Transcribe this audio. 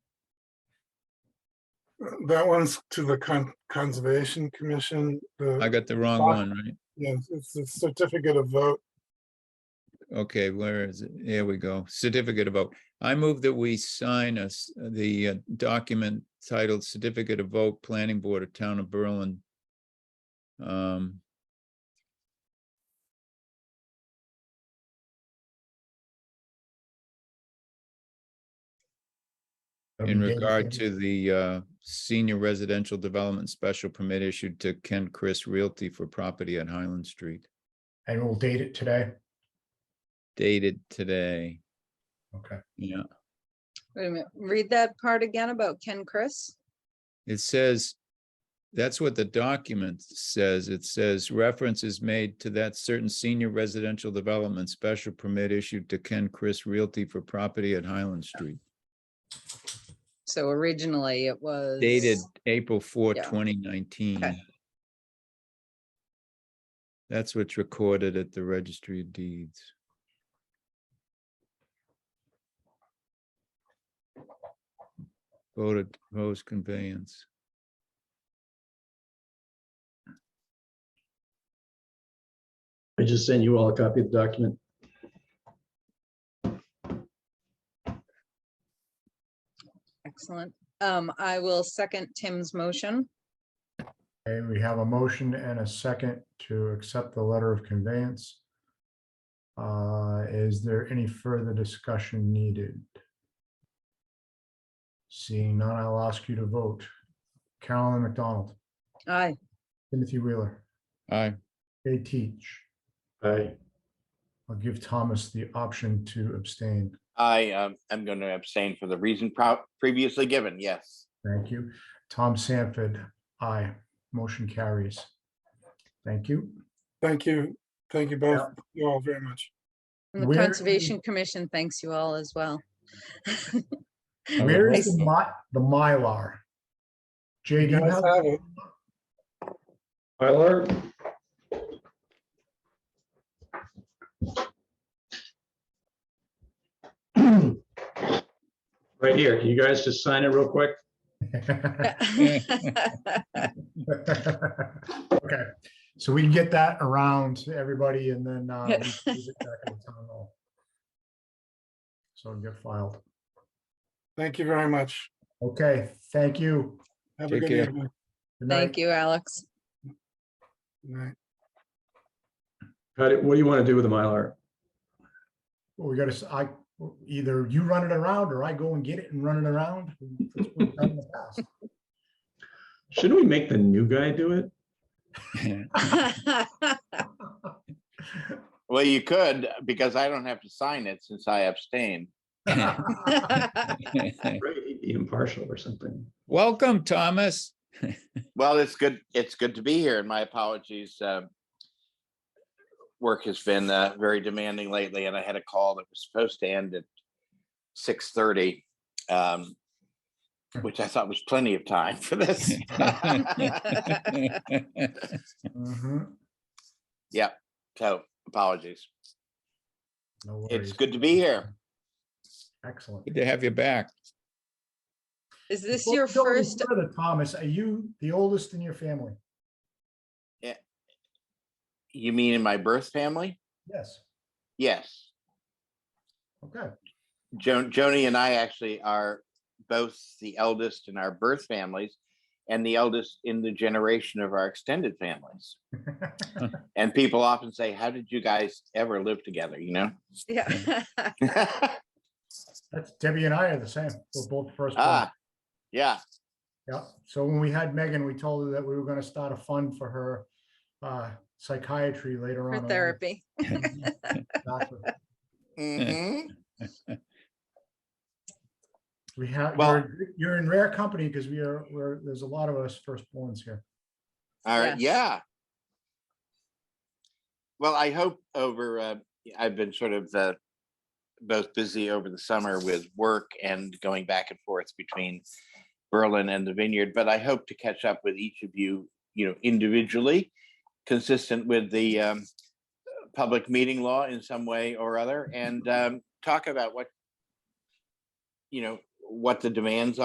That one's to the Con- Conservation Commission. I The, got the wrong Fox. one, right? yes, it's the certificate of vote. Okay, where is it? Here we go. Certificate of vote. I move that we sign us the uh, document titled Certificate of Vote Planning Board of Town of Berlin. Um, in regard to the uh, senior residential development special permit issued to Ken Chris Realty for property at Highland Street, And we'll date it today. dated today. Okay. Yeah, Wait a minute, read that part again about Ken Chris. It says, that's what the document says. It says reference is made to that certain senior residential development special permit issued to Ken Chris Realty for property at Highland Street. So originally it was. Dated April 4, Yeah. 2019. Okay. That's what's recorded at the registry of deeds. Voted, proposed conveyance. I just sent you all a copy of the document. Excellent. Um, I will second Tim's motion. Okay, we have a motion and a second to accept the letter of conveyance. Uh, Is there any further discussion needed? Seeing none, I'll ask you to vote. Carolyn McDonald, Aye. Timothy Wheeler, Aye. Jay Teach. Aye. I'll give Thomas the option to abstain. I um, am going to abstain for the reason pro- previously given, yes. Thank you. Tom Sanford, aye. Motion carries. Thank you. Thank you. Thank you both, you all very much. And the Where- Conservation Commission thanks you all as well. Where I is the mi- the Mylar? Jay, You do you guys have? have it. Mylar? Right here. Can you guys just sign it real quick? Okay, so we can get that around to everybody and then. uh, we can use it back at the town hall. So it'll get filed. Thank you very much. Okay, thank you. Have a Take good care. evening. Good night. Thank you, Alex. Good night. How do- What do you want to do with the Mylar? Well, We gotta, s- I, either you run it around or I go and get it and run it around. That's what we've done in the past. Shouldn't we make the new guy do it? Well, you could, uh, because I don't have to sign it since I abstain. Right, he'd be impartial or something. Welcome, Thomas. Well, it's good, it's good to be here and my apologies. um, Work has been uh, very demanding lately and I had a call that was supposed to end at six thirty. um, Which I thought was plenty of time for this. Mhm. So apologies. No It's worries. good to be here. Excellent. Good to have you back. Is this Well, your don't be first? further, Thomas, are you the oldest in your family? You mean in my birth family? Yes, Yes. okay. Jo- Joni and I actually are both the eldest in our birth families and the eldest in the generation of our extended families. And people often say, How did you guys ever live together? You know? Yeah. That's Debbie and I are the same. We're both first. ah, yeah. Yeah, so when we had Megan, we told her that we were gonna start a fund for her uh psychiatry later on. For in life. therapy. That's what- mhm. We have, Well- you're, you're in rare company because we are, we're, there's a lot of us firstborns here. All right. Yes. Yeah. Well, I hope over, uh, I've been sort of uh, both busy over the summer with work and going back and forth between Berlin and the vineyard, but I hope to catch up with each of you, you know, individually, consistent with the um, public meeting law in some way or other, and um, talk about what, you know, what the demands